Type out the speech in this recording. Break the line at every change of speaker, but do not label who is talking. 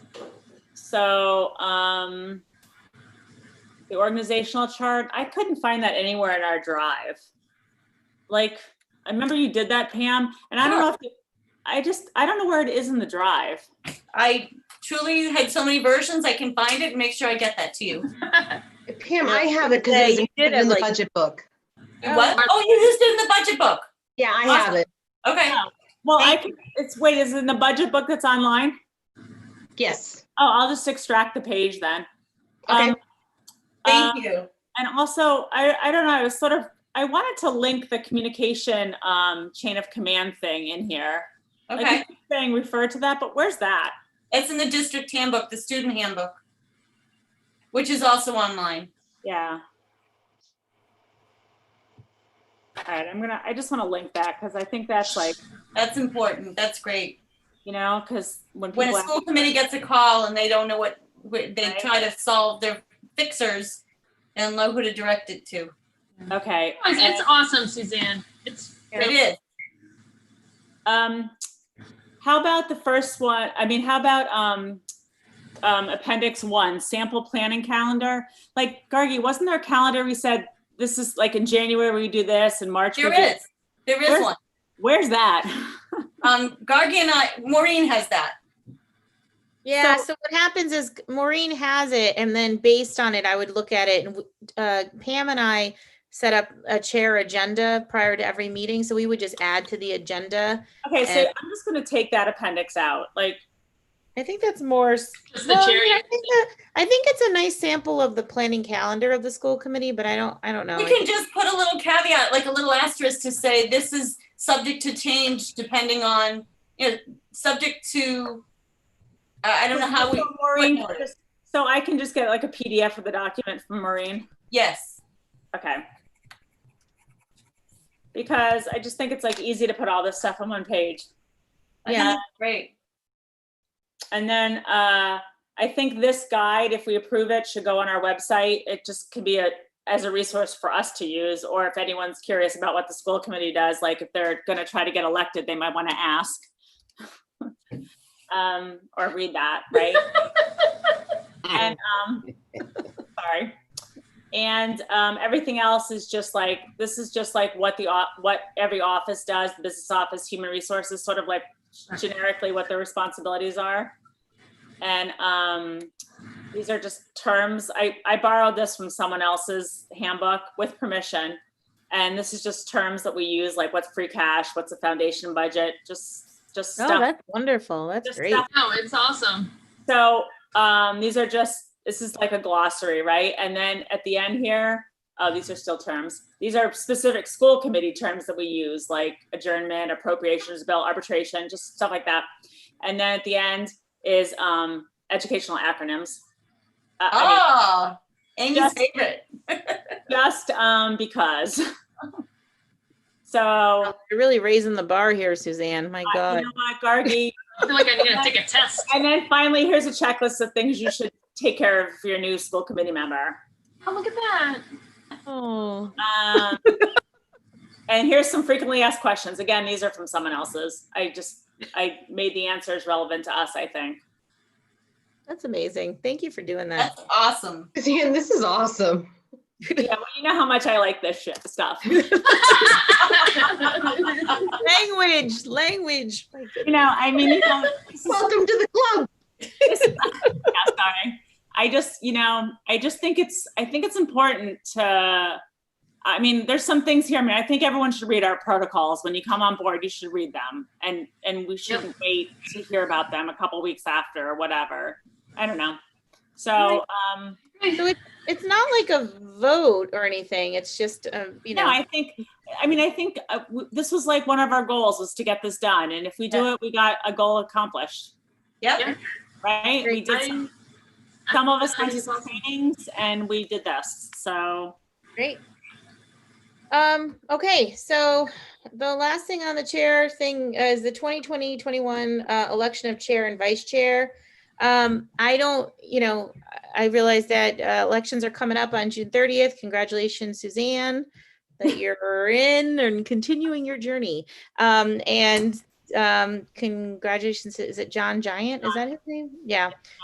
So, um, the organizational chart, I couldn't find that anywhere in our drive. Like, I remember you did that, Pam, and I don't know if, you- I just, I don't know where it is in the drive.
I truly had so many versions. I can find it and make sure I get that to you.
Pam, I have it because
Yeah,
it's
you
included
did it,
in the
like-
budget book.
You What? Oh, you used it in the budget book.
Yeah, I have it.
Okay.
Well, I can, it's, wait, is it in the budget book that's online?
Yes.
Oh, I'll just extract the page then.
Okay.
Um, um,
Thank you.
And also, I, I don't know, I was sort of, I wanted to link the communication, um, chain of command thing in here. Like,
Okay.
you keep Saying refer to that, but where's that?
It's in the district handbook, the student handbook, which is also online.
Yeah. All right, I'm gonna, I just wanna link that, cause I think that's like,
That's important. That's great.
you know, cause when
When
people,
a
ask-
school committee gets a call and they don't know what, what- they
Right.
try to solve their fixers and know who to direct it to.
okay.
It's it's awesome, Suzanne. It's
It is.
Um, how about the first one? I mean, how about, um, um, appendix one, sample planning calendar? Like, Gargi, wasn't there a calendar we said, this is like in January, we do this, in March? we
There
do-
is. There is
Where's-
one.
Where's that?
Um, Gargi and I, Maureen has that.
Yeah,
So-
so what happens is Maureen has it and then based on it, I would look at it and w- uh, Pam and I set up a chair agenda prior to every meeting, so we would just add to the agenda.
Okay, so
And-
I'm just gonna take that appendix out, like,
I think that's more. s-
just the
well,
cherry.
yeah, I think that- I think it's a nice sample of the planning calendar of the school committee, but I don't, I don't know.
We can just put a little caveat, like a little asterisk to say this is subject to change depending on, you know, subject to, I I don't know how we,
So Maureen can
what-
just- So I can just get like a PDF of the document from Maureen?
yes.
Okay. Because I just think it's like easy to put all this stuff on one page.
I think
Yeah.
that's Great.
And then uh, I think this guide, if we approve it, should go on our website. It just could be a, as a resource for us to use, or if anyone's curious about what the school committee does, like if they're gonna try to get elected, they might wanna ask. Um, or read that, right?
Mm.
And, um, sorry. And, um, everything else is just like, this is just like what the, o- what every office does, the business office, human resources, sort of like generically what their responsibilities are. And um, these are just terms. I, I borrowed this from someone else's handbook with permission. And this is just terms that we use, like what's free cash, what's a foundation budget, just, just
Oh,
stuff.
that's wonderful. That's
Just
great.
stuff.
No, it's awesome.
So um, these are just, this is like a glossary, right? And then at the end here, oh, these are still terms. These are specific school committee terms that we use, like adjournment, appropriations bill, arbitration, just stuff like that. And then at the end is um, educational acronyms. Uh, I
Oh, Amy's
Just-
favorite.
mean, just um, because. So,
Wow, You're really raising the bar here, Suzanne. My
you
God.
know what, Gargi,
I feel like I need to take a test.
and then finally, here's a checklist of things you should take care of for your new school committee member.
Oh, look at that.
Oh,
Um, and here's some frequently asked questions. Again, these are from someone else's. I just I made the answers relevant to us. I think.
that's amazing. Thank you for doing that.
That's awesome.
Suzanne, this is awesome.
Yeah, well, you know how much I like this shit stuff.
Language, language. My goodness.
You know, I mean, you know, this is-
Welcome to the club.
this is- yeah, sorry. I just, you know, I just think it's I think it's important to. I mean, there's some things here. I mean, I think everyone should read our protocols. When you come on board, you should read them, and and we shouldn't wait to hear about them a couple weeks after or whatever. I don't know. So, um,
It's not like a vote or anything. It's just, um, you
No,
know,
I think, I mean, I think uh, w- this was like one of our goals was to get this done. And if we do it, we got a goal accomplished,
Yep.
Yeah.
right? We did, some-
I-
some of us went to
That's
some
awesome.
trainings and we did this. So,
great. Um, okay, so the last thing on the chair thing uh, is the 2020, 21, uh, election of chair and vice chair. Um, I don't, you know, I realize that, uh, elections are coming up on June 30th. Congratulations, Suzanne, that you're in and continuing your journey. Um, and, um, congratulations, is it John Giant? Is that his name? Yeah.